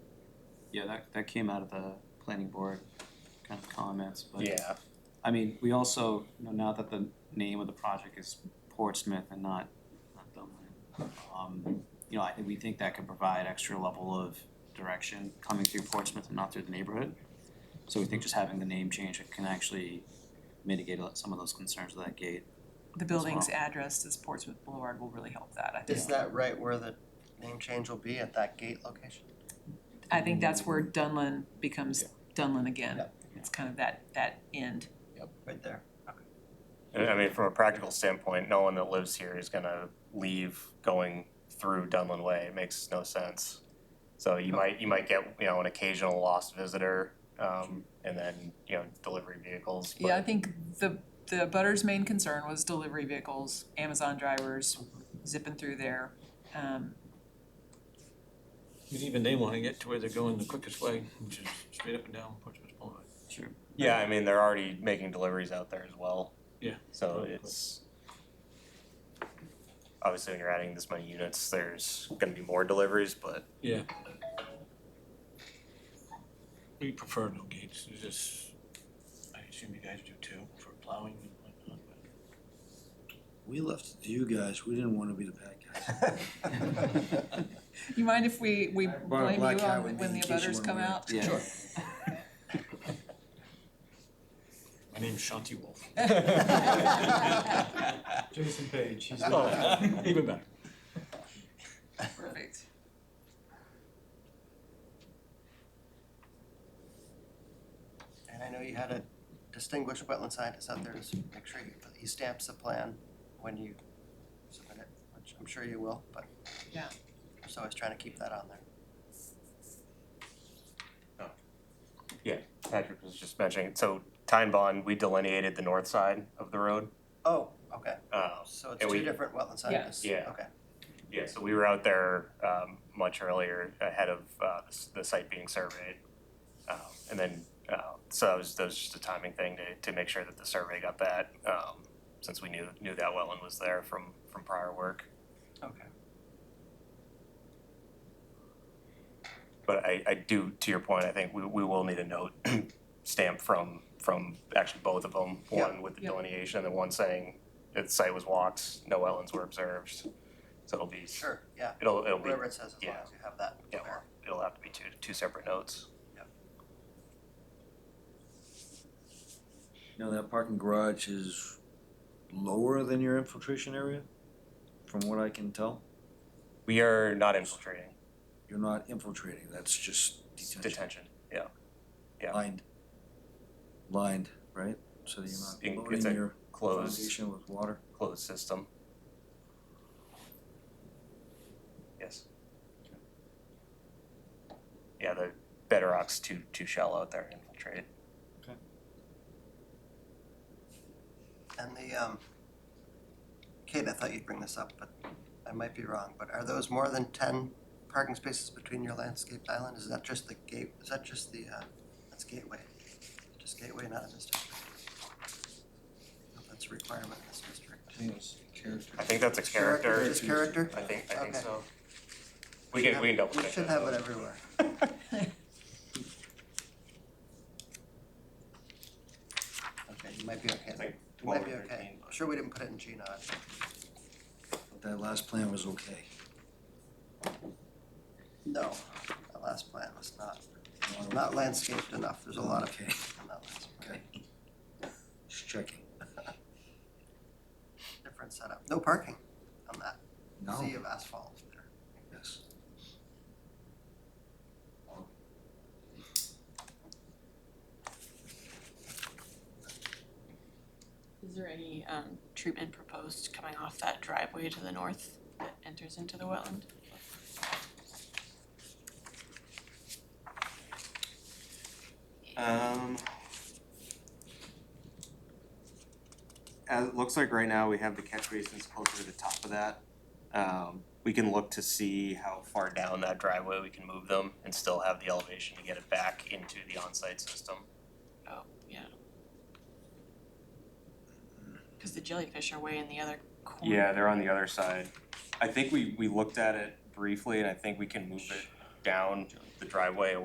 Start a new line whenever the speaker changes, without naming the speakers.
Yeah, that, that came out of the planning board kind of comments, but.
Yeah,
I mean, we also, you know, now that the name of the project is Portsmouth and not, not Dublin, um, you know, I think we think that could provide extra level of direction coming through Portsmouth and not through the neighborhood. So we think just having the name change can actually mitigate a lot- some of those concerns with that gate.
The building's address is Portsmouth Boulevard will really help that, I
Is
think.
that right where the name change will be at that gate location?
I think that's where Dunlin becomes Dunlin again.
Yeah.
It's kind of that, that end.
Right there.
And I mean, from a practical standpoint, no one that lives here is gonna leave going through Dunlin Way, it makes no sense. So you might, you might get, you know, an occasional lost visitor, um, and then, you know, delivery vehicles,
Yeah, I
but
think the, the butter's main concern was delivery vehicles, Amazon drivers zipping through there. Um,
But even they wanna get to where they're going the quickest way, which is straight up and down Portsmouth Boulevard.
Sure.
yeah, I mean, they're already making deliveries out there as well.
Yeah.
So it's obviously when you're adding this many units, there's gonna be more deliveries, but
Yeah. We prefer no gates, it's just, I assume you guys do too, for plowing and whatnot, but.
We left it to you guys, we didn't wanna be the bad guys.
You mind if we, we
I brought a
blame
black
you
hat
on
with
when
me
the
in case you
butters
wanna
come
wear it.
out?
Yeah.
Sure.
My name's Shanti Wolf.
Jason Page, he's
Oh, Even better.
Perfect.
And I know you had a distinguished wetland scientist out there to s- make sure he- he stamps the plan when you submit it, which I'm sure you will, but.
Yeah.
So I was trying to keep that on there.
Patrick was just mentioning, so Time Bond, we delineated the north side of the road.
Oh, okay,
Um,
so it's
And
two
we-
different wetland scientists, okay.
Yeah. Yeah, so we were out there um, much earlier ahead of uh, the s- the site being surveyed. Um, And then, uh, so that was, that was just a timing thing to, to make sure that the survey got that, um, since we knew, knew that wetland was there from, from prior work.
Okay.
But I, I do, to your point, I think we, we will need a note stamp from, from actually both of them.
Yeah.
One with the
Yeah.
delineation and one saying that the site was walked, no wetlands were observed. So it'll be,
Sure, yeah,
it'll, it'll be,
whatever it says, as long
yeah.
as you have that.
yeah, well, it'll have to be two, two separate notes.
Now, that parking garage is lower than your infiltration area, from what I can tell.
We are not infiltrating
You're not infiltrating, that's just detention,
detention. Yeah, yeah.
lined. Lined, right? So that
In-
you're
it's
not
a
loading your
closed,
foundation with water.
closed system. Yes. Yeah, the bedrock's too, too shallow out there to infiltrate.
And the, um, Kate, I thought you'd bring this up, but I might be wrong, but are those more than ten parking spaces between your landscaped island? Is that just the gate, is that just the, uh, that's gateway? Just gateway, not in this district? I don't know if That's a requirement in this district.
I think that's a character.
Just character?
I think, I think
Okay.
so. We can, we can double
We
check
should
that
have it
though.
everywhere. Okay, you might be okay.
It's
then.
like
You might
twelve
be
or
okay.
thirteen.
I'm Sure we didn't put it in G nine.
That last plan was okay,
No, that last plan was not,
Not
not landscaped enough. There's a lot of
okay,
on that last plan.
okay. Just checking.
Different setup. No parking on that
No,
sea of asphalt there.
yes.
Is there any um treatment proposed coming off that driveway to the north that enters into the wetland?
Uh,
Um. As, it looks like right now we have the catch basins closer to the top of that. Um, we can look to see how
Far down that driveway, we can move them and still have the elevation to get it back into the on-site system.
Oh, yeah. Cause the jellyfish are way in the other corner.
Yeah,
there
they're on the other side. I think we, we looked at it briefly and I think we can move it down the driveway